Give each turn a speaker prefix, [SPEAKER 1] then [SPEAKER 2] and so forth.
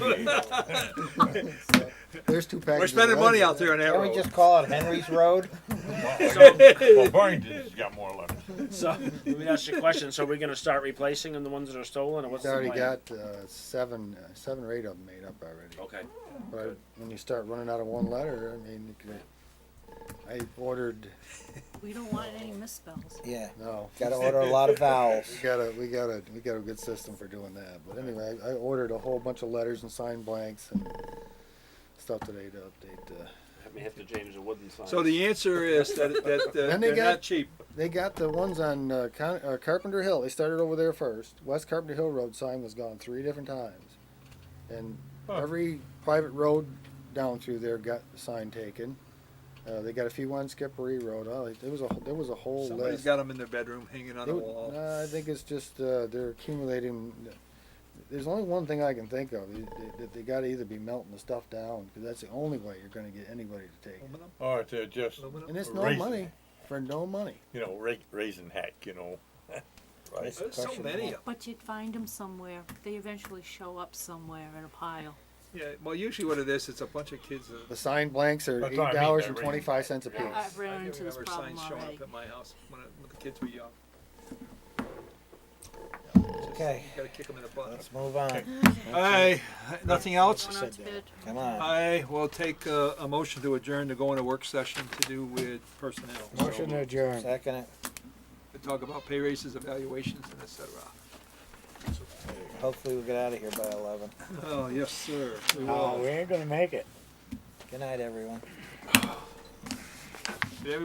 [SPEAKER 1] There's two packages.
[SPEAKER 2] We're
[SPEAKER 1] of
[SPEAKER 2] spending
[SPEAKER 1] lunch.
[SPEAKER 2] money out there on that
[SPEAKER 3] Can we
[SPEAKER 2] road.
[SPEAKER 3] just call it Henry's Road?
[SPEAKER 4] Well, Burlington's got more left.
[SPEAKER 5] So let me ask you a question. So we're going to start replacing them, the ones that are stolen, or what's
[SPEAKER 1] He's already
[SPEAKER 5] the plan?
[SPEAKER 1] got uh, seven, uh, seven or eight of them made up already.
[SPEAKER 5] Okay.
[SPEAKER 1] But I- when you start running out of one letter, I mean, you could- I ordered.
[SPEAKER 6] We don't want any misspells.
[SPEAKER 3] Yeah.
[SPEAKER 1] No,
[SPEAKER 3] Gotta order a lot of vowels.
[SPEAKER 1] we got a we got a we got a good system for doing that. But anyway, I, I ordered a whole bunch of letters and sign blanks and stuff today to update. uh, The,
[SPEAKER 5] Have me hit the James Wooden sign.
[SPEAKER 2] So the answer is that, that uh,
[SPEAKER 1] Then they
[SPEAKER 2] they're
[SPEAKER 1] got-
[SPEAKER 2] not cheap.
[SPEAKER 1] they got the ones on uh, Con- uh, Carpenter Hill. They started over there first. West Carpenter Hill Road sign was gone three different times, and every private road down through there got the sign taken. Uh, they got a few on Skippery Road. Oh, it- there was a there was a whole
[SPEAKER 2] Somebody's
[SPEAKER 1] list.
[SPEAKER 2] got them in their bedroom, hanging on
[SPEAKER 1] They
[SPEAKER 2] the
[SPEAKER 1] would-
[SPEAKER 2] wall.
[SPEAKER 1] nah, I think it's just uh, they're accumulating. There's only one thing I can think of. They, they, they got to either be melting the stuff down because that's the only way you're going to get anybody to take it.
[SPEAKER 2] Aluminum,
[SPEAKER 4] Or to just,
[SPEAKER 1] And
[SPEAKER 2] aluminum.
[SPEAKER 1] it's no
[SPEAKER 4] Raising.
[SPEAKER 1] money for no money.
[SPEAKER 4] you know, ra- raising heck, you know. Right?
[SPEAKER 2] There's so many of them.
[SPEAKER 6] But you'd find them somewhere. They eventually show up somewhere in a pile.
[SPEAKER 2] Yeah, well, usually what it is, it's a bunch of kids. that-
[SPEAKER 1] The signed blanks are
[SPEAKER 4] Oh, That's
[SPEAKER 1] eight
[SPEAKER 4] what I mean,
[SPEAKER 1] dollars
[SPEAKER 4] they're
[SPEAKER 1] and twenty five cents a
[SPEAKER 6] I- I've
[SPEAKER 1] piece.
[SPEAKER 2] I
[SPEAKER 6] ran
[SPEAKER 2] can
[SPEAKER 6] into this
[SPEAKER 2] remember
[SPEAKER 6] problem
[SPEAKER 2] signs showing
[SPEAKER 6] already.
[SPEAKER 2] up at my house when, I, when the kids were young.
[SPEAKER 3] Okay.
[SPEAKER 2] Gotta kick them in the butt.
[SPEAKER 3] Let's move on.
[SPEAKER 2] Aye, nothing else?
[SPEAKER 6] Going out to bid.
[SPEAKER 3] Come on.
[SPEAKER 2] I will take a, a motion to adjourn to go into work session to do with personnel.
[SPEAKER 1] Motion to adjourn.
[SPEAKER 3] Second it.
[SPEAKER 2] To talk about pay raises, evaluations, and et cetera.
[SPEAKER 3] Hopefully we'll get out of here by eleven.
[SPEAKER 2] Oh, yes, sir. We will.
[SPEAKER 7] No, we ain't gonna make it.
[SPEAKER 3] Good night, everyone.